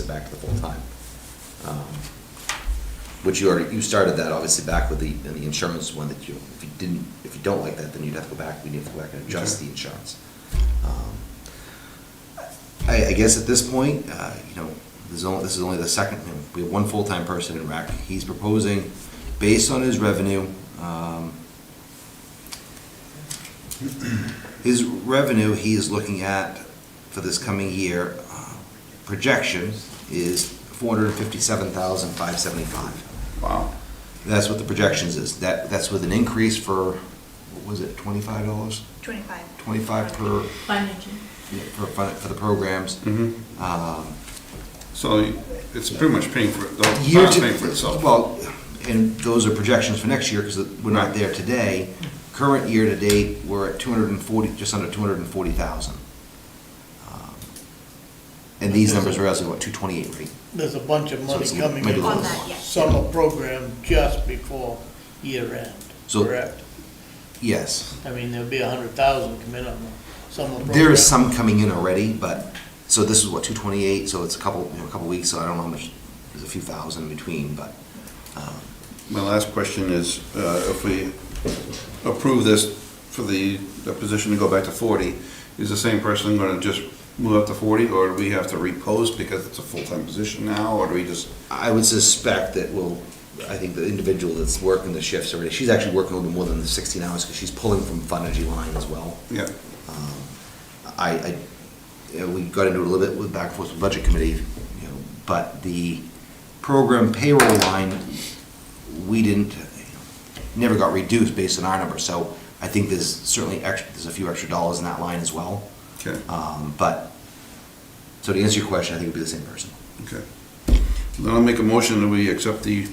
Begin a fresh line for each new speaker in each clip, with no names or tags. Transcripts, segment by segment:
it back to the full-time. Um, Which you already, you started that obviously back with the, in the insurance one that you, if you didn't, if you don't like that, then you'd have to go back, we need to go back and adjust the insurance. Um, I, I guess at this point, uh, you know, there's only, this is only the second, you know, we have one full-time person in rec. He's proposing, based on his revenue, um, his revenue he is looking at for this coming year, uh, projection is four hundred and fifty-seven thousand, five seventy-five.
Wow.
That's what the projections is. That, that's with an increase for, what was it, twenty-five dollars?
25.
25 per-
Fund engine.
For, fun- for the programs.
Mhm.
Um,
So it's pretty much paying for, it. the
Year
town's
to-
paying for itself.
Well, and those are projections for next year, because we're not there today. Current year-to-date, we're at two hundred and forty, just under two hundred and forty thousand. Um, And these numbers are as of what, two twenty-eight, right?
There's a bunch of
So
money
it's a-
coming
maybe
in
a little
On that,
more.
yes.
summer program just before year end,
So-
correct?
Yes.
I mean, there'll be a hundred thousand come in on the summer program.
There is some coming in already, but, so this is what, two twenty-eight, so it's a couple, you know, a couple weeks, so I don't know how much, there's a few thousand in between, but, um,
My last question is, uh, if we approve this for the, the position to go back to forty, is the same person gonna just move up to forty, or do we have to repost because it's a full-time position now, or do we just?
I would suspect that will, I think the individual that's working the shifts already, she's actually working a little bit more than the sixteen hours, because she's pulling from Fund Energy Line as well.
Yeah,
Um, I, I, yeah, we got into it a little bit with back and forth with Budget Committee, you know, but the program payroll line, we didn't, you know, never got reduced based on our number, so I think there's certainly extra, there's a few extra dollars in that line as well.
okay,
Um, but, so to answer your question, I think it'd be the same person.
okay. Then I'll make a motion that we accept the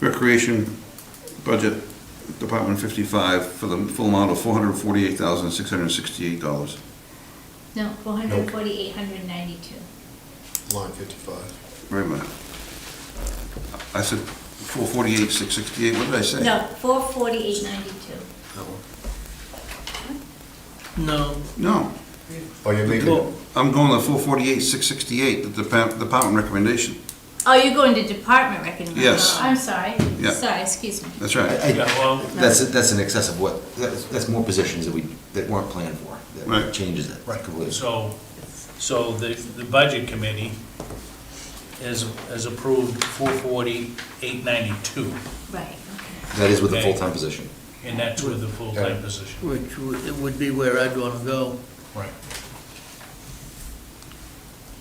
recreation budget, Department fifty-five, for the full amount of four hundred forty-eight thousand, six hundred sixty-eight dollars.
No, 448, 192.
Line fifty-five.
Wait a minute. I said four forty-eight, six sixty-eight, what did I say?
No, 448, 92.
that one.
No,
No.
Oh, you're leaving it?
Well, I'm going to four forty-eight, six sixty-eight, the depa- department recommendation.
Oh, you're going to department recommendation?
Yes.
I'm sorry.
Yeah.
Sorry, excuse me.
That's
I-
right.
I-
Yeah, well,
That's, that's in excess of what, that's, that's more positions that we, that weren't planned for, that
Right.
changes it
Right.
completely.
so, so the, the budget committee has, has approved four forty, eight ninety-two,
Right, okay.
That is with the
Okay.
full-time position.
and that's with the full-time
Okay.
position.
which would it would be where I'd wanna go.
Right.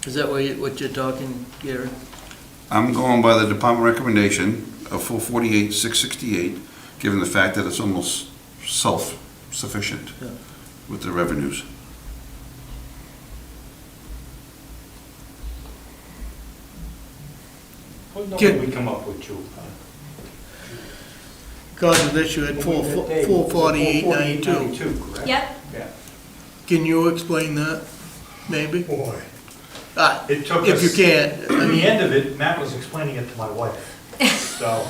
Is that where you, what you're talking, Gary?
I'm going by the department recommendation of four forty-eight, six sixty-eight, given the fact that it's almost self-sufficient
Yeah.
with the revenues.
What
Can-
number we come up with, Joe?
Cause of this, you had four, four forty-eight ninety-two.
correct?
Yep,
Yeah.
Can you explain that, maybe?
Boy.
Ah,
It took
If you
us-
can't, I
At the
mean,
end of it, Matt was explaining it to my wife, so.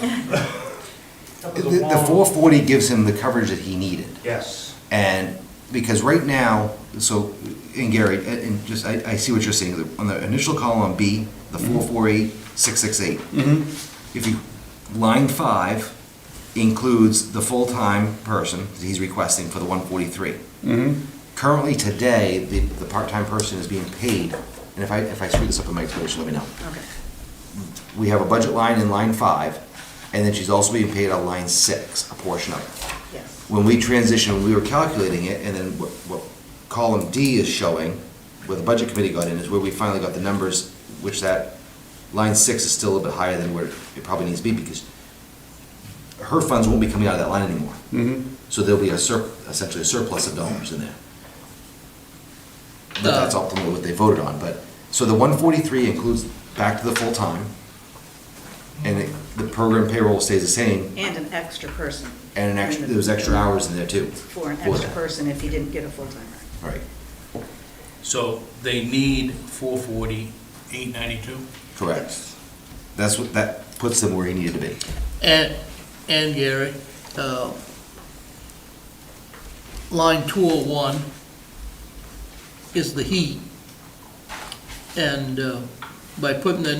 That
The,
was a
the
long-
four forty gives him the coverage that he needed,
Yes,
and, because right now, so, and Gary, and, and just, I, I see what you're saying, The- on the initial column B, the four four eight, six six eight. If you, line five includes the full-time person that he's requesting for the one forty-three. Currently, today, the, the part-time person is being paid, and if I, if I screw this up in my explanation, let me know.
okay.
we have a budget line in line five, and then she's also being paid on line six, a portion of it.
Yes.
When we transitioned, we were calculating it, and then what, what column D is showing, where the budget committee got in, is where we finally got the numbers, which that line six is still a little bit higher than where it probably needs to be, because her funds won't be coming out of that line anymore.
Mm-hmm.
So there'll be a sur, essentially a surplus of dollars in there. But that's ultimately what they voted on, but, so the one forty-three includes back to the full-time, and it- the program payroll stays the same,
And an extra person.
and an extra, there was extra hours in there too.
For an extra
that.
person if you didn't get a full-timer.
Right,
So they need four forty, eight ninety-two?
correct. That's what, that puts them where he needed to be.
and, and Gary, uh, line two oh one is the heat. And, uh, by putting the